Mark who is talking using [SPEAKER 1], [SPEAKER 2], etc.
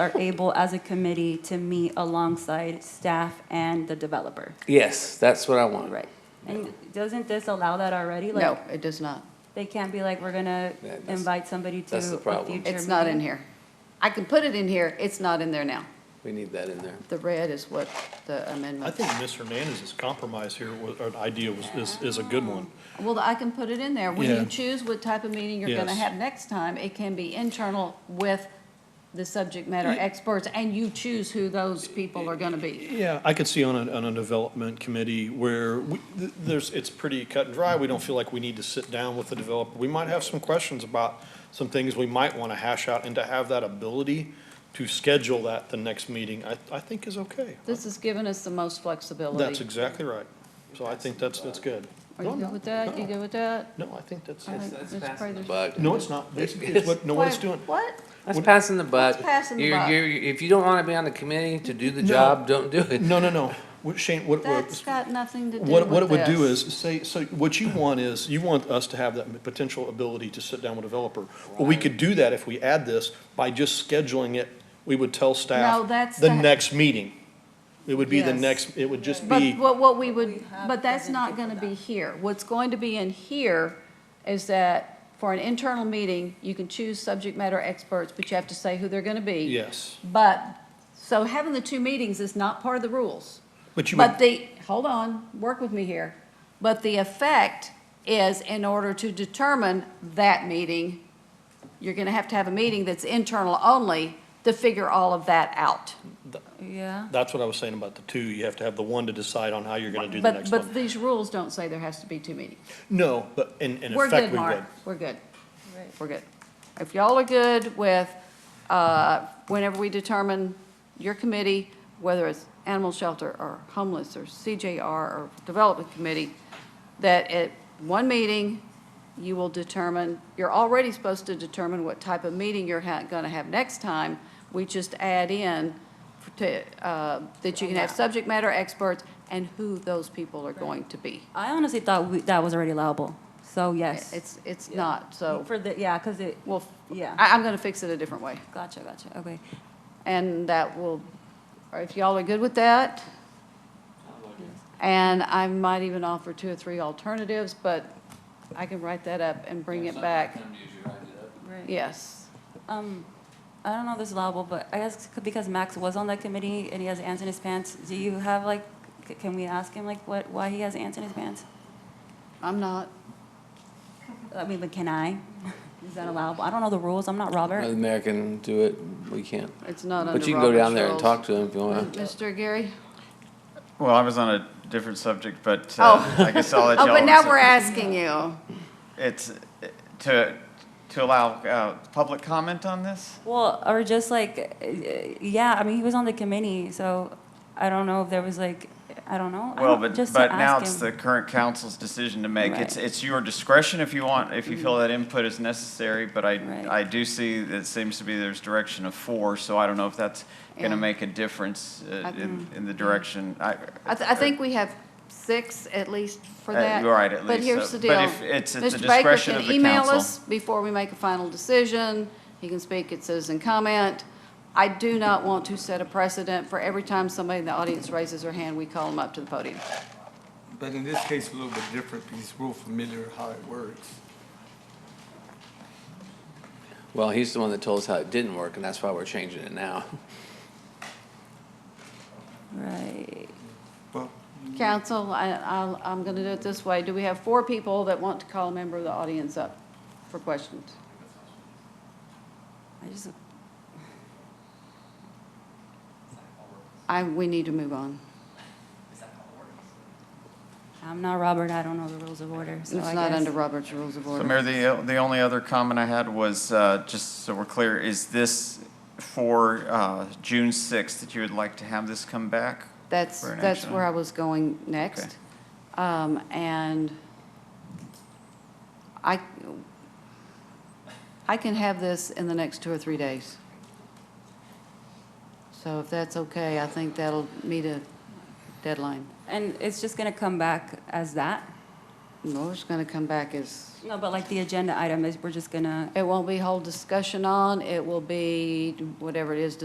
[SPEAKER 1] are able as a committee to meet alongside staff and the developer.
[SPEAKER 2] Yes, that's what I want.
[SPEAKER 1] Right. And doesn't this allow that already?
[SPEAKER 3] No,
[SPEAKER 1] Like,
[SPEAKER 3] it does not.
[SPEAKER 1] They can't be like, we're gonna
[SPEAKER 2] Yeah, that's-
[SPEAKER 1] invite somebody to a
[SPEAKER 2] that's the
[SPEAKER 1] future
[SPEAKER 2] problem.
[SPEAKER 1] meeting.
[SPEAKER 3] It's not in here. I can put it in here, it's not in there now.
[SPEAKER 2] We need that in there.
[SPEAKER 3] The red is what the
[SPEAKER 4] I
[SPEAKER 3] amendment.
[SPEAKER 4] think Ms. Hernandez's compromise here, was- or idea was, is, is a good one.
[SPEAKER 3] Well, I can put it in there. When
[SPEAKER 4] Yeah.
[SPEAKER 3] you choose what type of meeting you're gonna
[SPEAKER 4] Yes.
[SPEAKER 3] have next time, it can be internal with the subject matter experts, and you choose who those people are gonna be.
[SPEAKER 4] Yeah, I could see on a, on a development committee where we, th- there's, it's pretty cut and dry. We don't feel like we need to sit down with the developer. We might have some questions about some things we might want to hash out, and to have that ability to schedule that the next meeting, I, I think is okay.
[SPEAKER 3] This has given us the most flexibility.
[SPEAKER 4] That's exactly right. So I think that's, that's good.
[SPEAKER 3] Are you good with that? You good with that?
[SPEAKER 4] No, I think that's,
[SPEAKER 3] All right, let's pray this-
[SPEAKER 2] But
[SPEAKER 4] no, it's not. Basically, it's what, no, what it's doing.
[SPEAKER 3] What?
[SPEAKER 2] that's passing the buck.
[SPEAKER 3] passing the
[SPEAKER 2] You're-
[SPEAKER 3] buck.
[SPEAKER 2] you're- if you don't want to be on the committee to do the
[SPEAKER 4] No.
[SPEAKER 2] job, don't do it.
[SPEAKER 4] No, no, no. What- Shane, what, what?
[SPEAKER 3] That's got nothing to do with
[SPEAKER 4] What, what it would do
[SPEAKER 3] this.
[SPEAKER 4] is, say, so what you want is, you want us to have that potential ability to sit down with a developer. Well, we could do that if we add this, by just scheduling it, we would tell
[SPEAKER 3] No,
[SPEAKER 4] staff
[SPEAKER 3] that's
[SPEAKER 4] the
[SPEAKER 3] the-
[SPEAKER 4] next meeting. It would be the
[SPEAKER 3] Yes.
[SPEAKER 4] next, it would just
[SPEAKER 3] But
[SPEAKER 4] be,
[SPEAKER 3] what, what we would,
[SPEAKER 1] have
[SPEAKER 3] but that's not gonna be here. What's going to be in here is that for an internal meeting, you can choose subject matter experts, but you have to say who they're gonna be.
[SPEAKER 4] yes.
[SPEAKER 3] But, so having the two meetings is not part of the rules.
[SPEAKER 4] But you
[SPEAKER 3] But
[SPEAKER 4] would,
[SPEAKER 3] the, hold on, work with me here. But the effect is in order to determine that meeting, you're gonna have to have a meeting that's internal only to figure all of that out.
[SPEAKER 1] Yeah.
[SPEAKER 4] that's what I was saying about the two, you have to have the one to decide on how you're gonna do the
[SPEAKER 3] But,
[SPEAKER 4] next
[SPEAKER 3] but
[SPEAKER 4] one.
[SPEAKER 3] these rules don't say there has to be two meetings.
[SPEAKER 4] No, but in, in
[SPEAKER 3] We're
[SPEAKER 4] effect,
[SPEAKER 3] good,
[SPEAKER 4] we
[SPEAKER 3] Mark.
[SPEAKER 4] would.
[SPEAKER 3] We're good.
[SPEAKER 1] Right.
[SPEAKER 3] We're good. If y'all are good with, uh, whenever we determine your committee, whether it's animal shelter or homeless or CJR or development committee, that at one meeting, you will determine, you're already supposed to determine what type of meeting you're ha- gonna have next time. We just add in to, uh, that you can have subject matter experts and who those people are going to be.
[SPEAKER 1] I honestly thought we- that was already allowable, so yes.
[SPEAKER 3] It's, it's
[SPEAKER 1] Yeah.
[SPEAKER 3] not, so.
[SPEAKER 1] For the, yeah, because it,
[SPEAKER 3] Well,
[SPEAKER 1] Yeah.
[SPEAKER 3] I, I'm gonna fix it a different way,
[SPEAKER 1] gotcha, gotcha, okay.
[SPEAKER 3] and that will, or if y'all are good with that. And I might even offer two or three alternatives, but I can write that up and bring it back.
[SPEAKER 1] Right.
[SPEAKER 3] Yes.
[SPEAKER 1] Um, I don't know if this is allowable, but I guess c- because Max was on that committee and he has ants in his pants, do you have like, c- can we ask him like what, why he has ants in his pants?
[SPEAKER 3] I'm not,
[SPEAKER 1] I mean, but can I? Is that allowable? I don't know the rules, I'm not Robert.
[SPEAKER 2] The mayor can do it. We can't.
[SPEAKER 3] it's not under
[SPEAKER 2] But you can go
[SPEAKER 3] Robert's
[SPEAKER 2] down there and
[SPEAKER 3] rules.
[SPEAKER 2] talk to uh, him if you want.
[SPEAKER 3] Mr. Gary?
[SPEAKER 5] Well, I was on a different subject, but uh, I guess I'll let y'all.
[SPEAKER 3] Oh, but now
[SPEAKER 5] answer.
[SPEAKER 3] we're asking you.
[SPEAKER 5] It's uh, to, to allow uh, public comment on this?
[SPEAKER 1] Well, or just like, uh, yeah, I mean, he was on the committee, so I don't know if there was like, I don't know. I
[SPEAKER 5] Well,
[SPEAKER 1] don't-
[SPEAKER 5] but,
[SPEAKER 1] just to
[SPEAKER 5] but now
[SPEAKER 1] ask
[SPEAKER 5] it's
[SPEAKER 1] him.
[SPEAKER 5] the current council's decision to make. It's,
[SPEAKER 1] Right.
[SPEAKER 5] it's your discretion if you want, if you feel
[SPEAKER 3] Mm-hmm.
[SPEAKER 5] that input is necessary, but I,
[SPEAKER 1] Right.
[SPEAKER 5] I do see that it seems to be there's direction of four, so I don't know if that's going
[SPEAKER 3] Yeah.
[SPEAKER 5] to make a difference uh,
[SPEAKER 3] I
[SPEAKER 5] in, in the direction. I,
[SPEAKER 3] I, th- I think we have six at least for
[SPEAKER 5] Uh,
[SPEAKER 3] that.
[SPEAKER 5] you're right, at
[SPEAKER 3] But
[SPEAKER 5] least,
[SPEAKER 3] here's
[SPEAKER 5] so-
[SPEAKER 3] the deal.
[SPEAKER 5] but if it's at the
[SPEAKER 3] Mr. Baker
[SPEAKER 5] discretion
[SPEAKER 3] can
[SPEAKER 5] of the
[SPEAKER 3] email
[SPEAKER 5] council.
[SPEAKER 3] us Before we make a final decision, he can speak at citizen comment. I do not want to set a precedent for every time somebody in the audience raises their hand, we call them up to the podium.
[SPEAKER 6] But in this case, a little bit different because we're familiar how it works.
[SPEAKER 2] Well, he's the one that told us how it didn't work, and that's why we're changing it now.
[SPEAKER 1] Right.
[SPEAKER 6] Well,
[SPEAKER 3] Council, I, I'll, I'm gonna do it this way. Do we have four people that want to call a member of the audience up for questions?
[SPEAKER 1] I just,
[SPEAKER 3] I, we need to move on.
[SPEAKER 1] I'm not Robert, I don't know the rules of order,
[SPEAKER 3] It's
[SPEAKER 1] so I
[SPEAKER 3] not
[SPEAKER 1] guess-
[SPEAKER 3] under Robert's Rules of
[SPEAKER 5] So
[SPEAKER 3] Order.
[SPEAKER 5] Mayor, the, the only other comment I had was, uh, just so we're clear, is this for uh, June 6th that you would like to have this come back?
[SPEAKER 3] That's,
[SPEAKER 5] for an
[SPEAKER 3] that's
[SPEAKER 5] action
[SPEAKER 3] where I
[SPEAKER 5] item?
[SPEAKER 3] was going next. Um, and I, I can have this in the next two or three days. So if that's okay, I think that'll meet a deadline.
[SPEAKER 1] And it's just gonna come back as that?
[SPEAKER 3] No, it's gonna come back as,
[SPEAKER 1] No, but like the agenda item is, we're just gonna
[SPEAKER 3] it won't be whole discussion on, it will be whatever it is,